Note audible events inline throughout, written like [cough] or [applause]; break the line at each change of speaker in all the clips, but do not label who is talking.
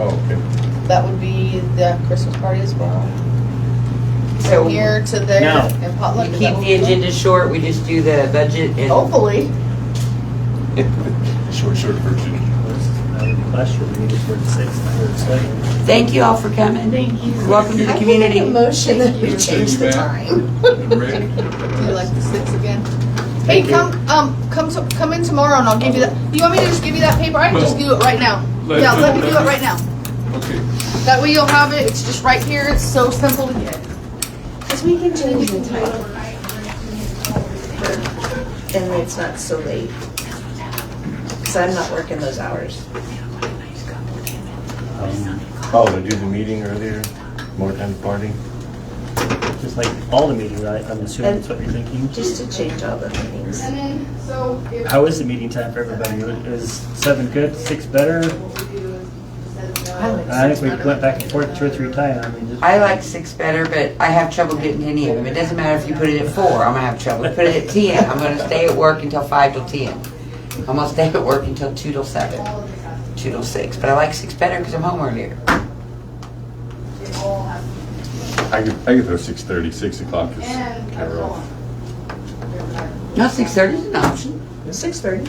Oh, okay. [laughs]
That would be the Christmas party as well.
So-
From here to there
No.
and potluck.
You
is that
keep
what
the
we're doing?
agenda short, we just do the budget and
Hopefully.
Short, short version.
Last year, we needed for the sixth, I heard say.
thank you all for coming. Thank you. Welcome to the community.
I think a motion that we
Send
change
you
the
back.
time.
And Rick?
[laughs] Do you like the six again? Hey,
Thank you.
come, um, come, to- come in tomorrow and I'll give you that. You want me to just give you that paper? I can just
No.
do it right now.
Let-
Yeah, let me do it right now.
Okay.
That way you'll have it. It's just right here. It's so simple to get.
Because we can change the time. And it's not so late. Because I'm not working those hours.
Um,
Oh, to do the meeting earlier, more time to party?
Just like all the meetings, I- I'm assuming that's what you're thinking.
Just to change all the meetings.
And then, so if.
How is the meeting time for everybody? Is seven good, six better?
I like
I
six
think we
better.
went back and forth two or three times, I mean, just.
I like six better, but I have trouble getting to any of them. It doesn't matter if you put it at four, I'm gonna have trouble. Put it at ten, I'm gonna stay at work until five till ten. I'm gonna stay at work until two till seven, two till six. But I like six better because I'm home earlier.
I could, I could throw six thirty, six o'clock is kind of rough.
No, six thirty is an option.
Six thirty.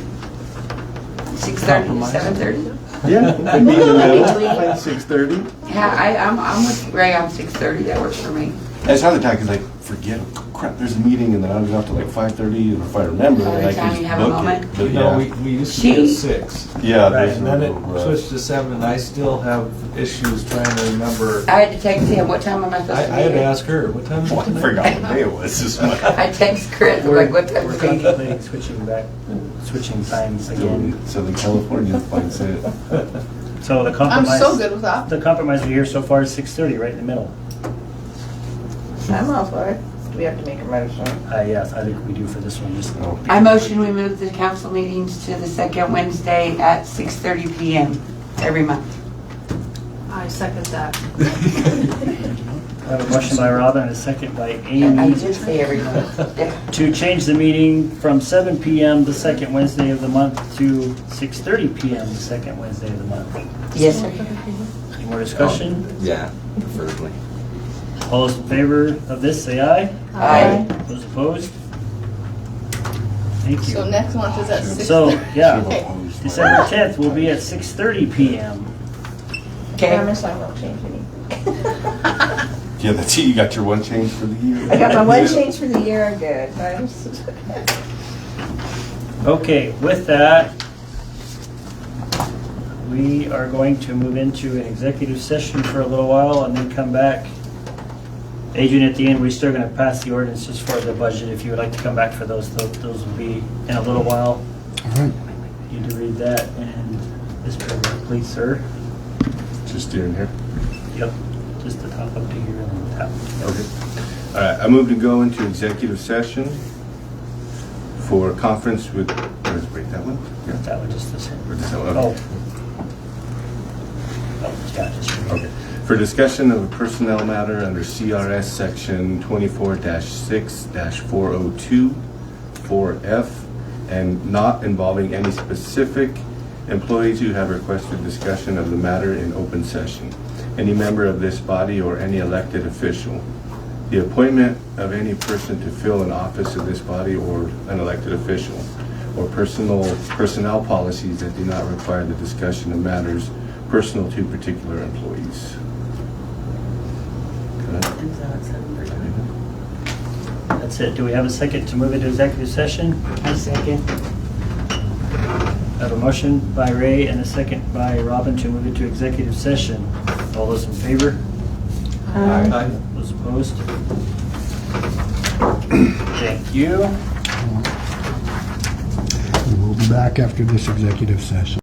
Six thirty to seven thirty.
[laughs] [laughs] Yeah, it could be in the middle, six thirty.
Yeah, I, I'm, I'm with Ray on six thirty. That works for me.
That's how the time, cause I forget, crap, there's a meeting and then I'm gonna have to like five thirty, and if I remember,
By the
then I
time you
can just
have a
book
moment.
it. But
No, we,
yeah,
we used to be at
She-
six.
yeah,
Right,
there's uh, a
and then
little
it switched
rush.
to seven, and I still have issues trying to remember.
I had to text him. What time am I
I,
supposed to be
I had to
here?
ask her, what time
[laughs]
is
Oh,
it
I
tonight?
forgot what day it was this month.
[laughs]
I text Chris. I'm
We're
like, what time
we're
is it?
contemplating switching back, switching times
Still
again.
in Southern California, like I said.
[laughs]
So the
I'm
compromise.
so good with that.
The compromise we hear so far is six thirty, right in the middle.
I'm all for it. Do we have to make a motion?
Uh, yes, I think we do for this one, just.
Oh,
I motion we move the council meetings to the second Wednesday at six thirty PM every month.
I second that.
I have a motion by Robin and a second by
I
Amy
did say every month. Yeah.
to change the meeting from seven PM the second Wednesday of the month to six thirty PM the second Wednesday of the month.
Yes, sir.
Any more discussion?
Oh, Yeah, preferably.
All those in favor of this, say aye.
Aye.
Those opposed? Thank
So
you.
next month is at six.
So, yeah,
[laughs] Okay.
December tenth will be at six thirty PM.
Okay.
Promise I won't change any.
Yeah, that's it, you got your one change for the year.
I got my one change for the year. I'm good. I'm-
Okay, with that, we are going to move into an executive session for a little while and then come back. Adrian, at the end, we're still gonna pass the ordinances for the budget. If you would like to come back for those, tho- those will be in a little while. You need to read that and this paragraph, please, sir.
Just in here.
Yep, just the top up to here and the top.
Okay. All right, I move to go into executive session for conference with, where's, wait, that one? Yeah.
That one, just this
Or
one.
just that one?
Oh. Oh, yeah, just read it.
Okay. For discussion of a personnel matter under CRS Section 24-6-402, 4F, and not involving any specific employees who have requested discussion of the matter in open session, any member of this body or any elected official. The appointment of any person to fill an office of this body or an elected official, or personal, personnel policies that do not require the discussion of matters personal to particular employees. Good.
That's it. Do we have a second to move into executive session?
I second.
I have a motion by Ray and a second by Robin to move into executive session. All those in favor?
Aye.
Those opposed? Thank you.
We'll be back after this executive session.